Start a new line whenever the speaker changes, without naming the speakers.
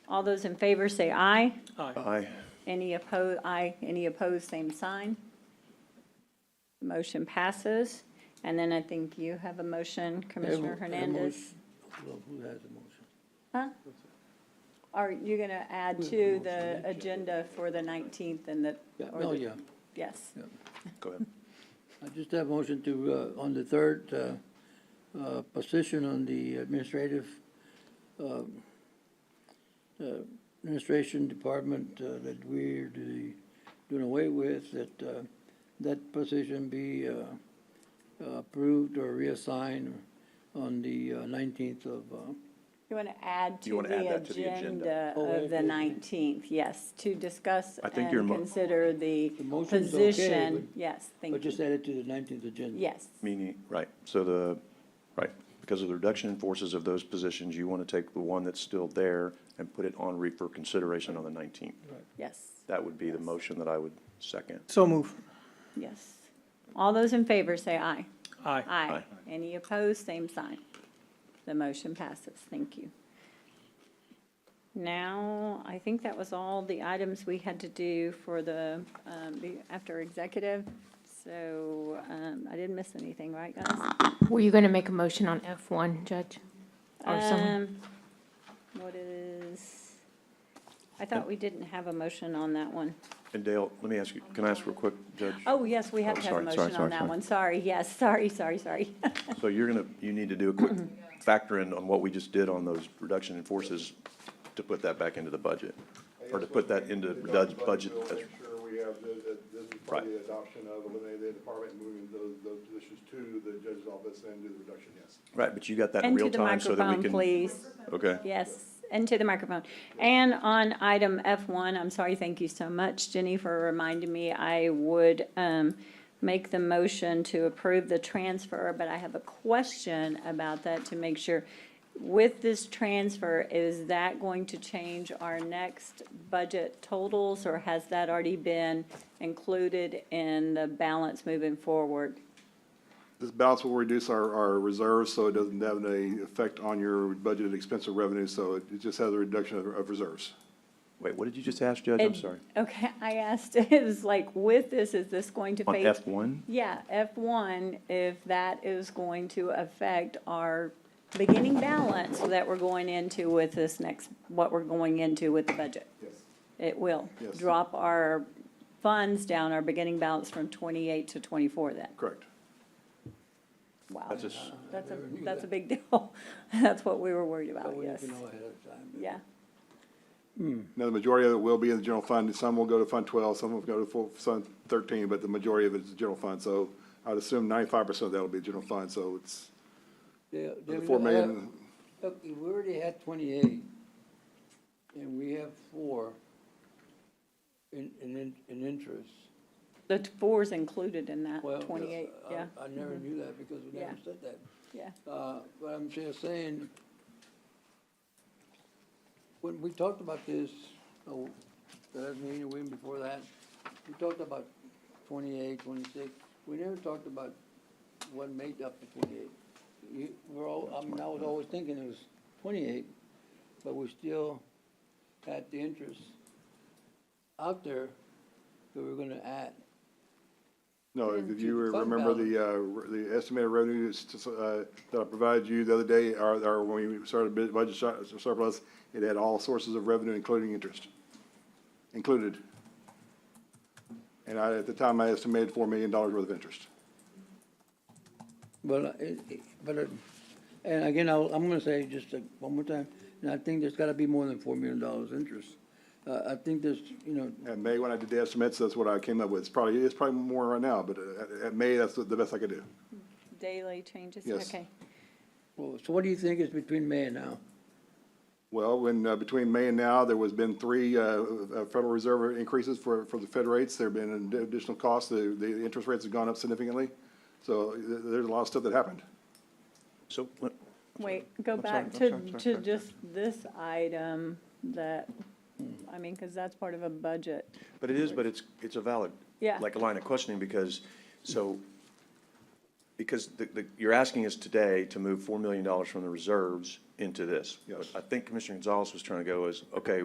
All those in favor say aye.
Aye.
Aye.
Any opposed, aye, any opposed, same sign. Motion passes. And then I think you have a motion, Commissioner
Have a- have a
Hernandez.
Well, who has the motion?
Are you going to add to the agenda for the 19th and the,
Yeah,
Or
oh,
the-
yeah.
yes,
Go ahead.
I just have a motion to, uh, on the third, uh, uh, position on the administrative, um, uh, administration department, uh, that we're do- doing away with, that, uh, that position be, uh, approved or reassigned on the nineteenth of, uh,
you want to add to
You wanna add
the
that to the agenda.
agenda
Oh,
of the
okay.
19th? Yes, to discuss
I think your
and
mo-
consider the
The motion's okay,
position.
but-
Yes,
but
thank
just
you.
add it to the nineteenth agenda.
Yes,
Meaning, right, so the, right, because of the reduction in forces of those positions, you want to take the one that's still there and put it on re for consideration on the 19th.
yes,
That would be the motion that I would second.
So move.
yes. All those in favor say aye.
Aye.
Aye.
Aye.
Any opposed, same sign. The motion passes. Thank you. Now, I think that was all the items we had to do for the, um, the, after executive. So, um, I didn't miss anything, right, guys?
Were you going to make a motion on F1, Judge? Or someone?
Um, what is, I thought we didn't have a motion on that one.
And Dale, let me ask you, can I ask real quick, Judge?
Oh, yes, we have
Oh,
to have a
sorry, sorry,
motion on
sorry,
that
sorry.
one. Sorry, yes, sorry, sorry, sorry.
So you're going to, you need to do a quick factor in on what we just did on those reduction in forces to put that back into the budget, or to put that into Dud's budget.
We'll
That's-
Make sure we have, the- the- this is part of the adoption of eliminating the department, moving those, those positions to the judge's office and do the reduction, yes.
Right, but you got that in
And to
real
the
time so that we
microphone,
can.
please.
Okay.
Yes, into the microphone. And on item F1, I'm sorry, thank you so much, Jenny, for reminding me. I would um, make the motion to approve the transfer, but I have a question about that to make sure. With this transfer, is that going to change our next budget totals, or has that already been included in the balance moving forward?
This balance will reduce our, our reserves, so it doesn't have any effect on your budgeted expense or revenue, so it it just has a reduction of, of reserves.
Wait, what did you just ask, Judge? I'm
It-
sorry.
Okay, I asked, it was like, with this, is this going to
On
phase?
F1?
Yeah, F1, if that is going to affect our beginning balance that we're going into with this next, what we're going into with the budget.
Yes.
It will.
Yes.
Drop our funds down, our beginning balance from 28 to 24 then.
Correct.
Wow.
That's just-
That's a,
Never knew
that's a
that.
big deal. That's what we were worried
That
about,
way you
Oh, yes.
can know ahead of time.
Yeah,
Now, the majority of it will be in the general fund, some will go to Fund twelve, some will go to full, Fund thirteen, but the majority of it is general fund, so I'd assume ninety-five percent of that will be general fund, so it's,
Yeah,
the
David,
four
I-
million,
Look, we already had twenty-eight, and we have four in, in, in- in interest.
the t- four's included in that,
Well, uh,
28,
I-
yeah, Mm-hmm.
I never knew that because we never
Yeah.
said that.
yeah.
Uh, but I'm just saying, when we talked about this, oh, the last meeting, we, before that, we talked about 28, 26. We never talked about what made up the twenty-eight. You, we're all, I mean, I was always thinking it was twenty-eight, but we still had the interest out there that we were gonna add.
No,
And
if
to
you
the fund
remember the, uh, re- the estimated revenues to s- uh, that I provided you the other day, or, or when we started bid- budget sur- surplus, it had all sources of revenue, including interest, included. And I, at the time, I estimated four million dollars worth of interest.
Well, uh, it, it- but, uh, and again, I'll, I'm gonna say just uh, one more time, and I think there's gotta be more than four million dollars interest. Uh, I think there's, you know,
At May, when I did the estimates, that's what I came up with. It's probably, it's probably more right now, but uh, at, at May, that's the the best I could do.
Daily changes,
Yes.
okay.
well, so what do you think is between May and now?
Well, when, uh, between May and now, there was been three uh, uh, Federal Reserve increases for, for the Fed rates. There have been additional costs. The, the interest rates have gone up significantly. So th- there's a lot of stuff that happened.
So, let-
Wait, go
I'm sorry,
back
I'm
to,
sorry, I'm sorry,
to
sorry, sorry.
just this item that, I mean, because that's part of a budget.
but it is, but it's, it's a valid,
Yeah.
like a line of questioning because, so, because the, the, you're asking us today to move four million dollars from the reserves into this.
Yes.
But I think Commissioner Gonzalez was trying to go is, okay,